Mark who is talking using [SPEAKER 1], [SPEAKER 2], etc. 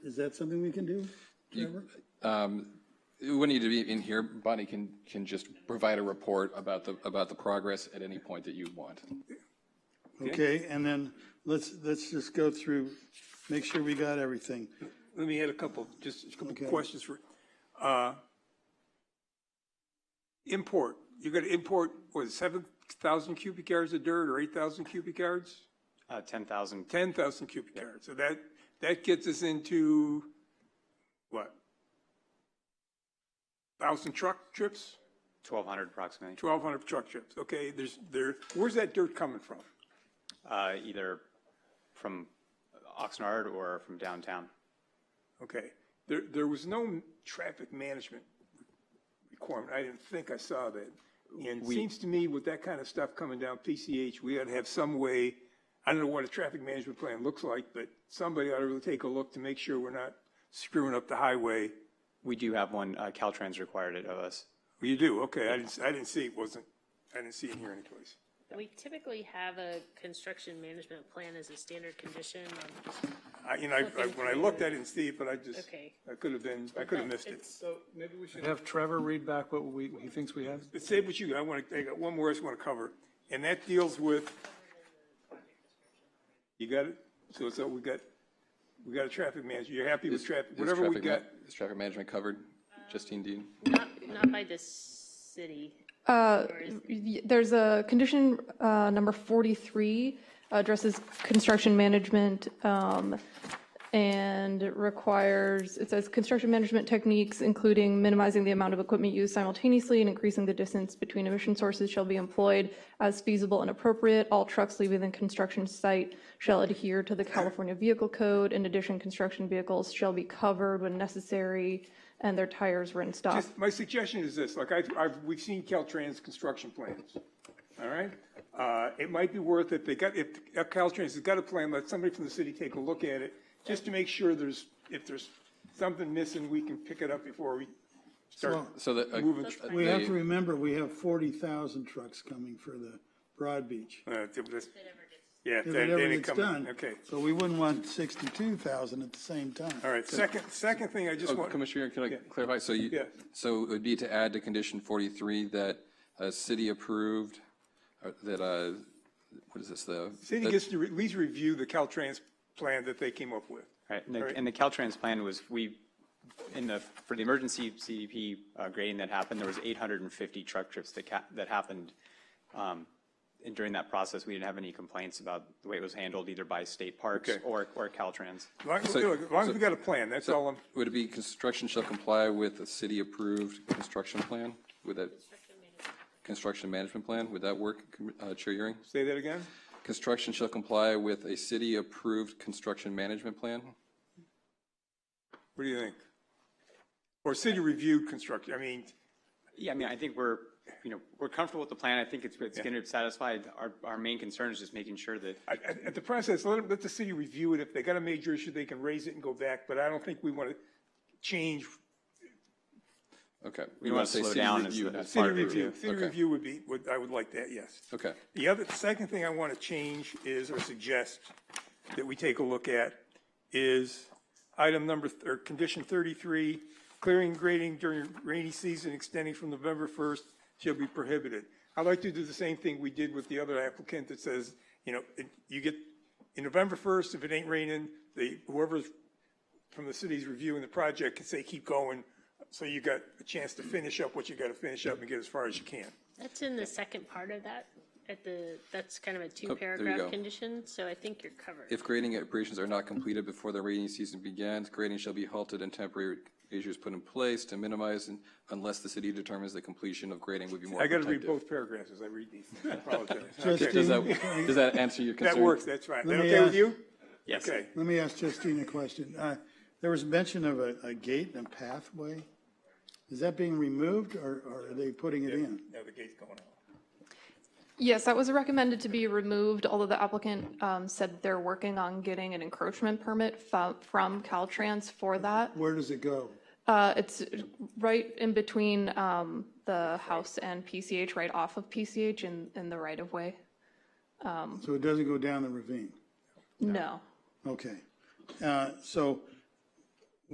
[SPEAKER 1] Is that something we can do, Trevor?
[SPEAKER 2] It um, wouldn't need to be in here. Bonnie can, can just provide a report about the, about the progress at any point that you want.
[SPEAKER 1] Okay, and then let's, let's just go through, make sure we got everything.
[SPEAKER 3] Let me add a couple, just a couple
[SPEAKER 1] Okay.
[SPEAKER 3] questions for, uh, import, you're gonna import, what, seven thousand cubic yards of dirt or eight thousand cubic yards?
[SPEAKER 4] Uh, 10,000,
[SPEAKER 3] Ten thousand cubic yards, so that, that gets us into, what? Thousand truck trips,
[SPEAKER 4] 1,200 approximately,
[SPEAKER 3] twelve hundred truck trips, okay, there's, there, where's that dirt coming from?
[SPEAKER 4] uh, either from Oxnard or from downtown.
[SPEAKER 3] Okay, there, there was no traffic management requirement, I didn't think I saw that. And it seems to me with that kind of stuff coming down PCH, we ought to have some way, I don't know what a traffic management plan looks like, but somebody ought to really take a look to make sure we're not screwing up the highway.
[SPEAKER 4] We do have one, uh, Caltrans required it of us.
[SPEAKER 3] Well, you do, okay, I didn't, I didn't see it wasn't, I didn't see it here anyplace.
[SPEAKER 5] We typically have a construction management plan as a standard condition. on-
[SPEAKER 3] I, you know, I- I- when I looked, I didn't see it, but I just,
[SPEAKER 5] Okay.
[SPEAKER 3] I could have been, I could have missed it.
[SPEAKER 5] It's-
[SPEAKER 6] So maybe we should have Trevor read back what we, he thinks we have.
[SPEAKER 3] But say what you, I want to, I got one more I just want to cover, and that deals with, you got it? So, so we got, we got a traffic manager, you're happy with traffic,
[SPEAKER 2] Is
[SPEAKER 3] whatever we
[SPEAKER 2] traffic ma-
[SPEAKER 3] got,
[SPEAKER 2] Is traffic management covered? Justine Dean?
[SPEAKER 5] Not, not by the city.
[SPEAKER 7] There's a condition, uh, number 43, addresses construction management, um, and it requires, it says, "Construction management techniques, including minimizing the amount of equipment used simultaneously and increasing the distance between emission sources shall be employed as feasible and appropriate. All trucks leaving the construction site shall adhere to the California Vehicle Code. In addition, construction vehicles shall be covered when necessary and their tires rinsed off."
[SPEAKER 3] Just- my suggestion is this, like, I've, I've, we've seen Caltrans construction plans, all right? Uh, it might be worth it, they got, if, if Caltrans has got a plan, let somebody from the city take a look at it, just to make sure there's, if there's something missing, we can pick it up before we start
[SPEAKER 2] So the, uh,
[SPEAKER 3] moving.
[SPEAKER 1] We have
[SPEAKER 2] the-
[SPEAKER 1] to remember, we have 40,000 trucks coming for the Broad Beach.
[SPEAKER 3] Uh, if this- Yeah,
[SPEAKER 1] If
[SPEAKER 3] they- they didn't
[SPEAKER 1] everything's
[SPEAKER 3] come,
[SPEAKER 1] done.
[SPEAKER 3] okay.
[SPEAKER 1] So we wouldn't want 62,000 at the same time.
[SPEAKER 3] All right, second, second thing I just
[SPEAKER 2] Oh,
[SPEAKER 3] want,
[SPEAKER 2] Commissioner, can I clarify? So you,
[SPEAKER 3] Yeah.
[SPEAKER 2] so it would be to add to condition 43 that a city approved, uh, that, uh, what is this, the?
[SPEAKER 3] city
[SPEAKER 2] that-
[SPEAKER 3] gets to re- at least review the Caltrans plan that they came up with.
[SPEAKER 4] Right, and the, and the Caltrans plan was, we, in the, for the emergency CDP uh, grading that happened, there was 850 truck trips that ca, that happened. um, And during that process, we didn't have any complaints about the way it was handled either by state parks
[SPEAKER 3] Okay.
[SPEAKER 4] or, or Caltrans.
[SPEAKER 3] As long as look, as long as we got a plan, that's all I'm,
[SPEAKER 2] Would it be construction shall comply with a city-approved construction plan? Would that, construction management plan, would that work, Com- uh, Chair Euring?
[SPEAKER 3] say that again?
[SPEAKER 2] Construction shall comply with a city-approved construction management plan?
[SPEAKER 3] What do you think? Or city reviewed construction, I mean,
[SPEAKER 4] Yeah, I mean, I think we're, you know, we're comfortable with the plan. I think it's, it's going to satisfy, our, our main concern is just making sure that
[SPEAKER 3] at, at- at the process, let, 'em- let the city review it. If they got a major issue, they can raise it and go back, but I don't think we want to change.
[SPEAKER 2] Okay.
[SPEAKER 4] We wanna
[SPEAKER 2] wanna say
[SPEAKER 4] slow
[SPEAKER 2] city
[SPEAKER 4] down as
[SPEAKER 2] review
[SPEAKER 4] the-
[SPEAKER 2] has-
[SPEAKER 4] as
[SPEAKER 3] City
[SPEAKER 4] Part review.
[SPEAKER 3] review, city
[SPEAKER 2] Okay.
[SPEAKER 3] review would be, would, I would like that, yes.
[SPEAKER 2] Okay,
[SPEAKER 3] The other, second thing I want to change is, or suggest that we take a look at, is item number, th- or condition 33, clearing and grading during rainy season extending from November 1st shall be prohibited. I'd like to do the same thing we did with the other applicant that says, you know, it- you get, in November 1st, if it ain't raining, the, whoever's from the city's reviewing the project can say, keep going, so you got a chance to finish up what you got to finish up and get as far as you can.
[SPEAKER 5] That's in the second part of that, at the, that's kind of a
[SPEAKER 2] go.
[SPEAKER 5] two-paragraph condition, so I think you're covered.
[SPEAKER 2] if grading operations are not completed before the rainy season begins, grading shall be halted and temporary measures put in place to minimize and- unless the city determines the completion of grading would be more
[SPEAKER 3] I got to read
[SPEAKER 2] protective.
[SPEAKER 3] both paragraphs as I read these. I apologize.
[SPEAKER 1] Just
[SPEAKER 3] Okay.
[SPEAKER 2] Does that, does that answer your concern?
[SPEAKER 3] That works, that's right. That
[SPEAKER 1] Let me
[SPEAKER 3] okay with
[SPEAKER 1] ask-
[SPEAKER 3] you?
[SPEAKER 4] Yes.
[SPEAKER 3] Okay.
[SPEAKER 1] Let me ask Justine a question. Uh, There was mention of a, a gate and a pathway. Is that being removed or, or are they putting it in?
[SPEAKER 3] Now the gate's going out.
[SPEAKER 7] Yes, that was recommended to be removed, although the applicant um, said they're working on getting an encroachment permit fo- from Caltrans for that.
[SPEAKER 1] Where does it go?
[SPEAKER 7] Uh, It's right in between um, the house and PCH, right off of PCH in, in the right-of-way.
[SPEAKER 1] So it doesn't go down the ravine?
[SPEAKER 7] No.
[SPEAKER 1] Okay. Uh, So